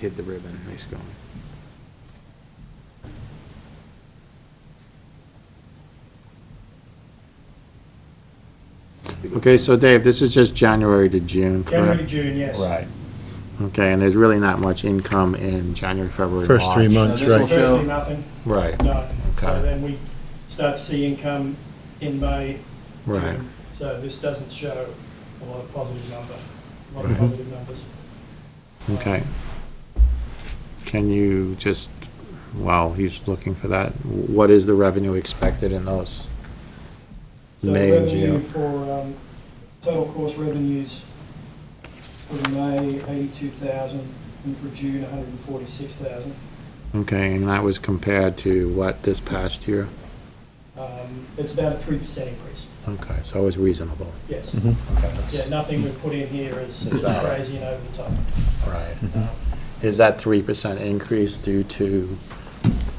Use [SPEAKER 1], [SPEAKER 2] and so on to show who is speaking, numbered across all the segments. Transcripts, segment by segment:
[SPEAKER 1] hid the ribbon, nice going. Okay, so Dave, this is just January to June,
[SPEAKER 2] January,
[SPEAKER 1] correct?
[SPEAKER 2] June, yes.
[SPEAKER 1] Okay, and there's really not much income in January, February, March.
[SPEAKER 3] First three months. That's
[SPEAKER 4] So this will
[SPEAKER 3] right.
[SPEAKER 2] Virtually
[SPEAKER 4] show-
[SPEAKER 2] nothing,
[SPEAKER 1] Right,
[SPEAKER 2] none. So
[SPEAKER 1] Okay.
[SPEAKER 2] then we start to see income in May. Um,
[SPEAKER 1] right.
[SPEAKER 2] So this doesn't show a lot of positive number, a lot of
[SPEAKER 1] Mm-hmm.
[SPEAKER 2] positive numbers.
[SPEAKER 1] Okay. Can you just, while he's looking for that, what is the revenue expected in those?
[SPEAKER 2] So
[SPEAKER 1] May and
[SPEAKER 2] revenue
[SPEAKER 1] June?
[SPEAKER 2] for, um, total course revenues for May, eighty-two thousand, and for June, hundred and forty-six thousand.
[SPEAKER 1] Okay, and that was compared to what this past year?
[SPEAKER 2] Um, it's about a three percent increase,
[SPEAKER 1] Okay, so it was reasonable.
[SPEAKER 2] yes.
[SPEAKER 1] Mm-hmm.
[SPEAKER 3] Mhm.
[SPEAKER 2] Yeah, nothing we've put in here is is
[SPEAKER 1] Exactly.
[SPEAKER 2] crazy and over the top.
[SPEAKER 1] Right.
[SPEAKER 2] Um,
[SPEAKER 1] Is that three percent increase due to,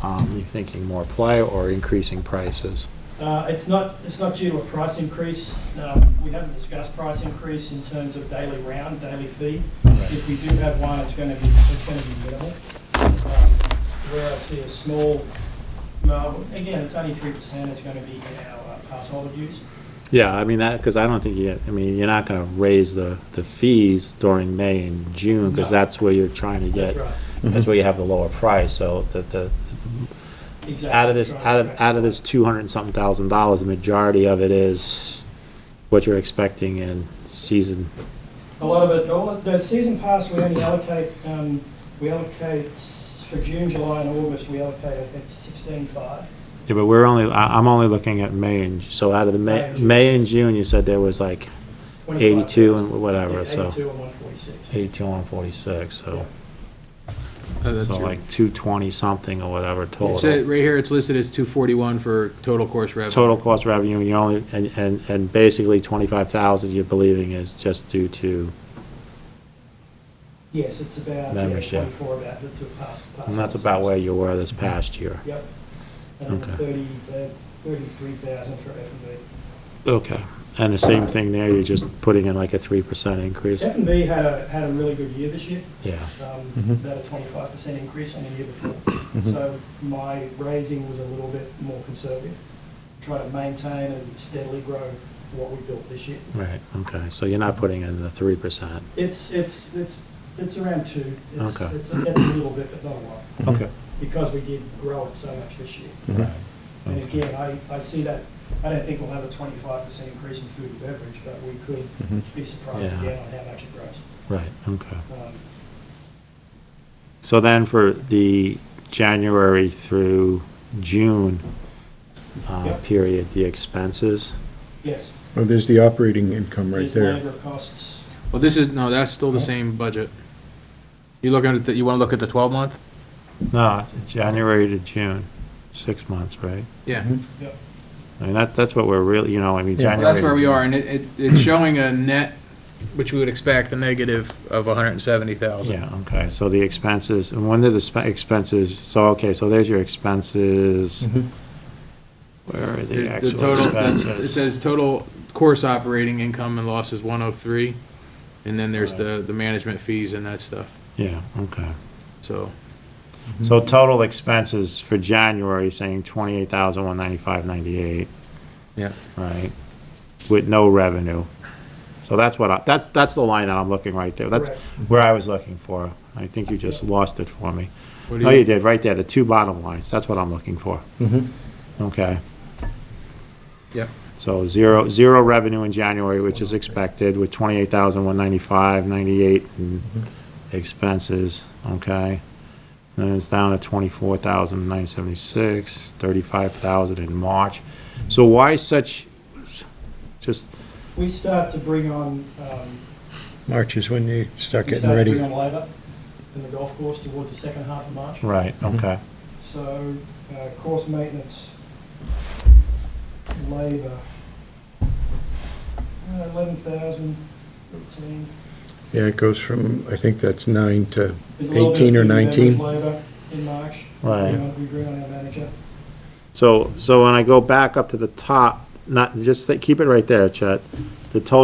[SPEAKER 1] um, you thinking more play or increasing prices?
[SPEAKER 2] Uh, It's not, it's not due to a price increase. Um, We haven't discussed price increase in terms of daily round, daily fee. If we do have one, it's going to be, it's going to be minimal. Um, Where I see a small, no, again, it's only three percent is going to be in our uh, pass holder dues.
[SPEAKER 1] Yeah, I mean, that, because I don't think you, I mean, you're not gonna raise the, the fees during May and June, because
[SPEAKER 2] No.
[SPEAKER 1] that's where you're trying to
[SPEAKER 2] That's
[SPEAKER 1] get,
[SPEAKER 2] right.
[SPEAKER 1] that's where you have the lower price, so the, the,
[SPEAKER 2] Exactly.
[SPEAKER 1] out of this,
[SPEAKER 2] Right,
[SPEAKER 1] out of,
[SPEAKER 2] right.
[SPEAKER 1] out of this two hundred and something thousand dollars, the majority of it is what you're expecting in season.
[SPEAKER 2] A lot of it, all of the season pass, we only allocate, um, we allocate s- for June, July and August, we allocate, I think, sixteen-five.
[SPEAKER 1] Yeah, but we're only, I, I'm only looking at May and, so out of the
[SPEAKER 2] May
[SPEAKER 1] May,
[SPEAKER 2] and June.
[SPEAKER 1] May and June, you said there was like eighty-two and whatever, so.
[SPEAKER 2] Eighty-two and one forty-six.
[SPEAKER 1] Eighty-two and forty-six, so,
[SPEAKER 4] Oh, that's
[SPEAKER 1] so
[SPEAKER 4] your-
[SPEAKER 1] like two twenty something or whatever
[SPEAKER 4] It said-
[SPEAKER 1] total.
[SPEAKER 4] right here, it's listed as two forty-one for total course revenue.
[SPEAKER 1] Total cost revenue, you only, and, and, and basically twenty-five thousand you're believing is just due to,
[SPEAKER 2] Yes, it's about, yeah,
[SPEAKER 1] Membership.
[SPEAKER 2] twenty-four about, the two pass. pass
[SPEAKER 1] and that's
[SPEAKER 2] houses.
[SPEAKER 1] about where you were this past year.
[SPEAKER 2] Yep. And
[SPEAKER 1] Okay.
[SPEAKER 2] thirty, uh, thirty-three thousand for F and B.
[SPEAKER 1] Okay, and the same thing there, you're just putting in like a three percent increase?
[SPEAKER 2] F and B had a, had a really good year this year,
[SPEAKER 1] Yeah,
[SPEAKER 2] um,
[SPEAKER 1] Mm-hmm.
[SPEAKER 3] Mhm.
[SPEAKER 2] about a twenty-five percent increase on the year before. So my raising was a little bit more conservative, try to maintain and steadily grow what we built this year.
[SPEAKER 1] right, okay, so you're not putting in the three percent?
[SPEAKER 2] It's, it's, it's, it's around two. It's-
[SPEAKER 1] Okay.
[SPEAKER 2] It's, it's a little bit, but not a lot,
[SPEAKER 1] Okay.
[SPEAKER 2] because we did grow it so much this year.
[SPEAKER 3] Mhm.
[SPEAKER 2] And again, I, I see that, I don't think we'll have a twenty-five percent increase in food and beverage, but we could
[SPEAKER 3] Mhm.
[SPEAKER 2] be surprised
[SPEAKER 1] Yeah.
[SPEAKER 2] again on how much it grows.
[SPEAKER 1] Right, okay.
[SPEAKER 2] Um,
[SPEAKER 1] So then for the January through June uh,
[SPEAKER 2] Yep.
[SPEAKER 1] period, the expenses?
[SPEAKER 2] Yes,
[SPEAKER 3] Well, Oh, there's the operating income right
[SPEAKER 2] there's
[SPEAKER 3] there.
[SPEAKER 2] labor costs,
[SPEAKER 4] Well, this is, no, that's still the same budget. You looking at, the- you wanna look at the twelve month?
[SPEAKER 1] No, it's January to June, six months, right?
[SPEAKER 4] Yeah.
[SPEAKER 2] yep,
[SPEAKER 1] I mean, that, that's what we're really, you know, I mean,
[SPEAKER 3] Yeah.
[SPEAKER 1] January.
[SPEAKER 4] Well,
[SPEAKER 3] Well,
[SPEAKER 4] that's where
[SPEAKER 1] to
[SPEAKER 4] we
[SPEAKER 1] June.
[SPEAKER 4] are, and it, it, it's showing a net, which we would expect, a negative of a hundred and seventy thousand.
[SPEAKER 1] Yeah, okay, so the expenses, and when did the spe- expenses, so, okay, so there's your expenses.
[SPEAKER 3] Mhm.
[SPEAKER 1] Where are the
[SPEAKER 4] Mm-hmm. The the
[SPEAKER 1] actual
[SPEAKER 4] total, it
[SPEAKER 1] expenses?
[SPEAKER 4] says total course operating income and loss is one oh three, and then there's the, the management fees and that stuff,
[SPEAKER 1] Yeah, okay.
[SPEAKER 4] so.
[SPEAKER 1] So total expenses for January, saying twenty-eight thousand, one ninety-five, ninety-eight,
[SPEAKER 4] Yeah.
[SPEAKER 1] right? With no revenue. So that's what I, that's, that's the line that I'm looking right there. That's
[SPEAKER 2] Correct.
[SPEAKER 1] where I was looking for. I think you just lost it for me.
[SPEAKER 4] What do
[SPEAKER 1] No, you did, right there, the two bottom lines. That's what I'm looking for.
[SPEAKER 3] Mhm.
[SPEAKER 1] Okay.
[SPEAKER 4] Yep.
[SPEAKER 1] So zero, zero revenue in January, which is expected, with twenty-eight thousand, one ninety-five, ninety-eight in expenses, okay? Then it's down to twenty-four thousand, nine seventy-six, thirty-five thousand in March. So why such, just,
[SPEAKER 2] We start to bring on, um,
[SPEAKER 3] March is when you start
[SPEAKER 2] we
[SPEAKER 3] getting
[SPEAKER 2] start to
[SPEAKER 3] ready.
[SPEAKER 2] bring on labor in the golf course towards the second half of March.
[SPEAKER 1] right, okay,
[SPEAKER 2] So, uh, course maintenance, labor, uh, eleven thousand, thirteen.
[SPEAKER 3] Yeah, it goes from, I think that's nine to
[SPEAKER 2] There's a little bit of
[SPEAKER 3] 18 or
[SPEAKER 2] food and beverage
[SPEAKER 3] 19.
[SPEAKER 2] Labor in March.
[SPEAKER 1] Right.
[SPEAKER 2] We agree on- We agree on our manager.
[SPEAKER 1] so, so when I go back up to the top, not, just, keep it right there, Chet. The total